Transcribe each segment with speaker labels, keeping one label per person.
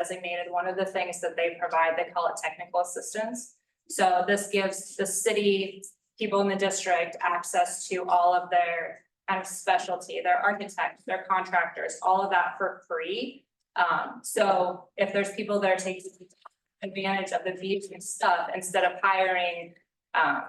Speaker 1: designated, one of the things that they provide, they call it technical assistance. So this gives the city, people in the district, access to all of their kind of specialty, their architects, their contractors, all of that for free. Um, so if there's people that are taking advantage of the beach and stuff, instead of hiring, um,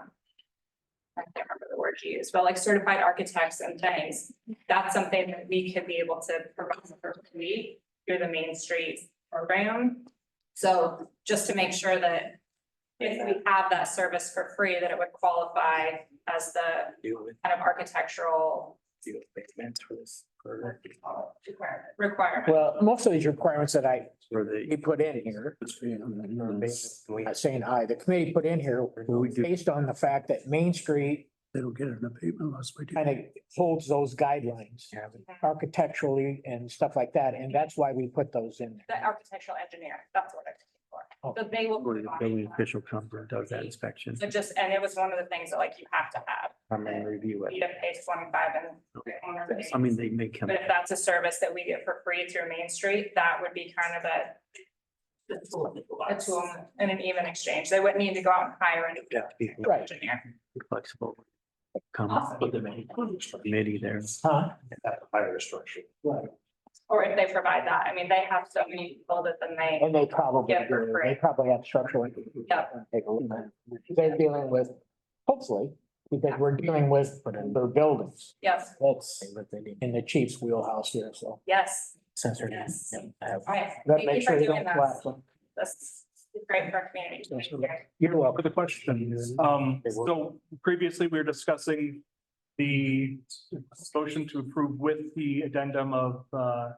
Speaker 1: I can't remember the word you used, but like certified architects and things, that's something that we could be able to provide for free through the Main Street program. So just to make sure that if we have that service for free, that it would qualify as the
Speaker 2: do with,
Speaker 1: kind of architectural
Speaker 2: do with payments for this. For
Speaker 1: requirement.
Speaker 3: Well, most of these requirements that I,
Speaker 2: for
Speaker 3: we
Speaker 2: the.
Speaker 3: put in here,
Speaker 2: for base, we-
Speaker 3: I'm not saying I, the committee put in here,
Speaker 4: We do.
Speaker 3: based on the fact that Main Street
Speaker 4: They don't get an abatement unless we do.
Speaker 3: kind of holds those guidelines architecturally and stuff like that, and that's why we put those in
Speaker 1: The
Speaker 3: there.
Speaker 1: architectural engineer, that's what I'm
Speaker 3: Oh.
Speaker 1: looking for. So they will.
Speaker 4: Or the building
Speaker 1: provide
Speaker 4: official comes and does that inspection,
Speaker 1: that. So just, and it was one of the things that like you have to have,
Speaker 2: Come and review
Speaker 1: you
Speaker 2: it.
Speaker 1: have page twenty-five and.
Speaker 4: Okay.
Speaker 1: owner base.
Speaker 4: I mean, they may come.
Speaker 1: But if that's a service that we get for free through Main Street, that would be kind of a, a tool and an even exchange. They wouldn't need to go out and hire a new
Speaker 2: Yeah, people
Speaker 3: Right.
Speaker 1: engineer.
Speaker 4: Flexible. Come with the committee there.
Speaker 3: Huh?
Speaker 2: have to hire a structure.
Speaker 1: Or if they provide that, I mean, they have so many people that then they,
Speaker 3: And they probably,
Speaker 1: Yeah, for
Speaker 3: do.
Speaker 1: free.
Speaker 3: they probably have structural.
Speaker 1: Yeah.
Speaker 3: Take a look at it. They're dealing with, hopefully, because we're dealing with their buildings.
Speaker 1: yes,
Speaker 3: That's in the chief's wheelhouse here, so.
Speaker 1: yes,
Speaker 3: Since they're.
Speaker 1: Yes.
Speaker 3: Yeah.
Speaker 1: all right.
Speaker 3: That
Speaker 1: Thank you
Speaker 3: makes
Speaker 1: for
Speaker 3: sure you
Speaker 1: doing
Speaker 3: don't
Speaker 1: that.
Speaker 3: collapse them.
Speaker 1: That's great for our community. Thank you.
Speaker 3: You're welcome.
Speaker 5: For the question,
Speaker 2: Mm-hmm.
Speaker 5: um, so previously we were discussing the motion to approve with the addendum of, uh,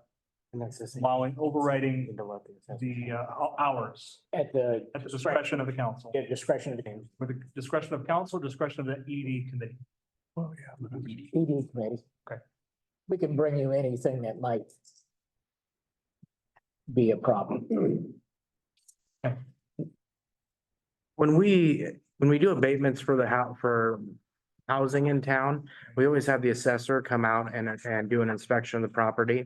Speaker 5: allowing overriding the uh, hou- hours
Speaker 3: At the
Speaker 5: at the discretion of the council,
Speaker 3: at discretion of the ED
Speaker 5: with the discretion of council, discretion of the ED committee.
Speaker 4: Oh, yeah.
Speaker 3: E committee.
Speaker 5: Okay.
Speaker 3: We can bring you anything that might be a problem.
Speaker 2: When we, when we do abatements for the house, for housing in town, we always have the assessor come out and, and do an inspection of the property.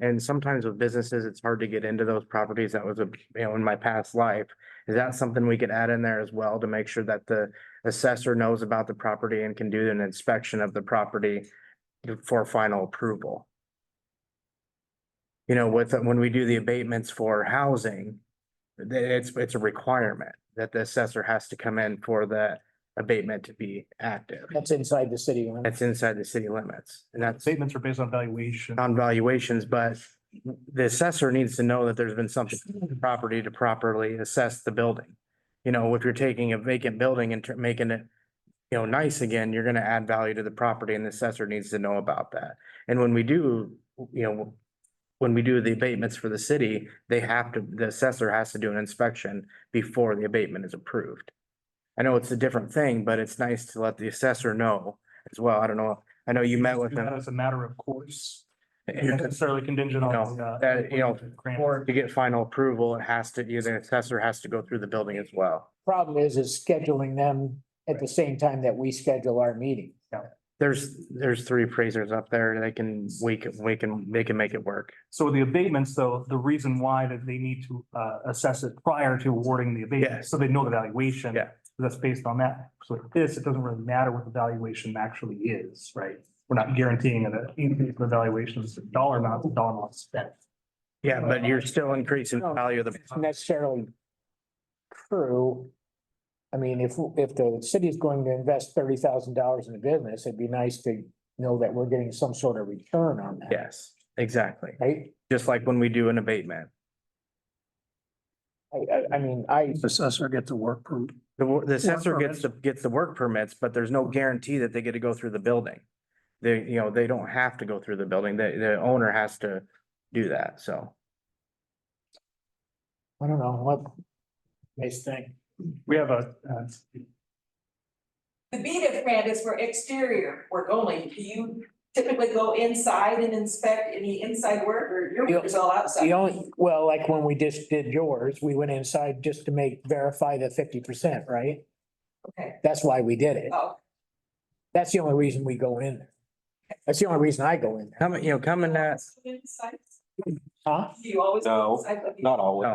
Speaker 2: And sometimes with businesses, it's hard to get into those properties. That was a, you know, in my past life. Is that something we could add in there as well to make sure that the assessor knows about the property and can do an inspection of the property for final approval? You know, with, when we do the abatements for housing, the- it's, it's a requirement that the assessor has to come in for the abatement to be active.
Speaker 3: That's inside the city limits.
Speaker 2: That's inside the city limits and that's
Speaker 5: Statements are based on valuation.
Speaker 2: on valuations, but the assessor needs to know that there's been something to the property to properly assess the building. You know, if you're taking a vacant building and tur- making it, you know, nice again, you're gonna add value to the property and the assessor needs to know about that. And when we do, you know, when we do the abatements for the city, they have to, the assessor has to do an inspection before the abatement is approved. I know it's a different thing, but it's nice to let the assessor know as well. I don't know. I know you met with
Speaker 5: Do that
Speaker 2: them.
Speaker 5: As a matter of course, not necessarily contingent on.
Speaker 2: No,
Speaker 5: uh,
Speaker 2: that, you know,
Speaker 5: grant.
Speaker 2: Or to get final approval, it has to, the assessor has to go through the building as well.
Speaker 3: Problem is, is scheduling them at the same time that we schedule our meeting.
Speaker 2: There's, there's three appraisers up there. They can, we can, we can, they can make it work.
Speaker 5: So the abatements, though, the reason why that they need to uh assess it prior to awarding the
Speaker 2: Yeah.
Speaker 5: abatement, so they know the valuation.
Speaker 2: Yeah.
Speaker 5: That's based on that. So with this, it doesn't really matter what the valuation actually is, right? We're not guaranteeing an increase in the valuation, it's a dollar amount, it's a dollar amount spent.
Speaker 2: Yeah, but you're still increasing the value of the.
Speaker 5: Uh-huh.
Speaker 3: It's necessarily true. I mean, if, if the city is going to invest thirty thousand dollars in a business, it'd be nice to know that we're getting some sort of return on that.
Speaker 2: Yes, exactly.
Speaker 3: Right?
Speaker 2: Just like when we do an abatement.
Speaker 3: I, I, I mean, I,
Speaker 4: Assessor gets a work permit.
Speaker 2: The, wor- the assessor gets
Speaker 4: permits.
Speaker 2: the, gets the work permits, but there's no guarantee that they get to go through the building. They, you know, they don't have to go through the building. The, the owner has to do that, so.
Speaker 3: I don't know what. Nice thing.
Speaker 5: We have a, uh,
Speaker 6: The BDIF grant is for exterior work only. Do you typically go inside and inspect any inside work or your work is all outside?
Speaker 3: The only, well, like when we just did yours, we went inside just to make, verify the fifty percent, right?
Speaker 6: Okay.
Speaker 3: That's why we did it.
Speaker 6: Oh,
Speaker 3: That's the only reason we go in there. That's the only reason I go in there.
Speaker 2: Coming, you know, coming at,
Speaker 6: Inside.
Speaker 7: Huh?
Speaker 8: You always.
Speaker 6: No,
Speaker 8: I-
Speaker 6: Not always.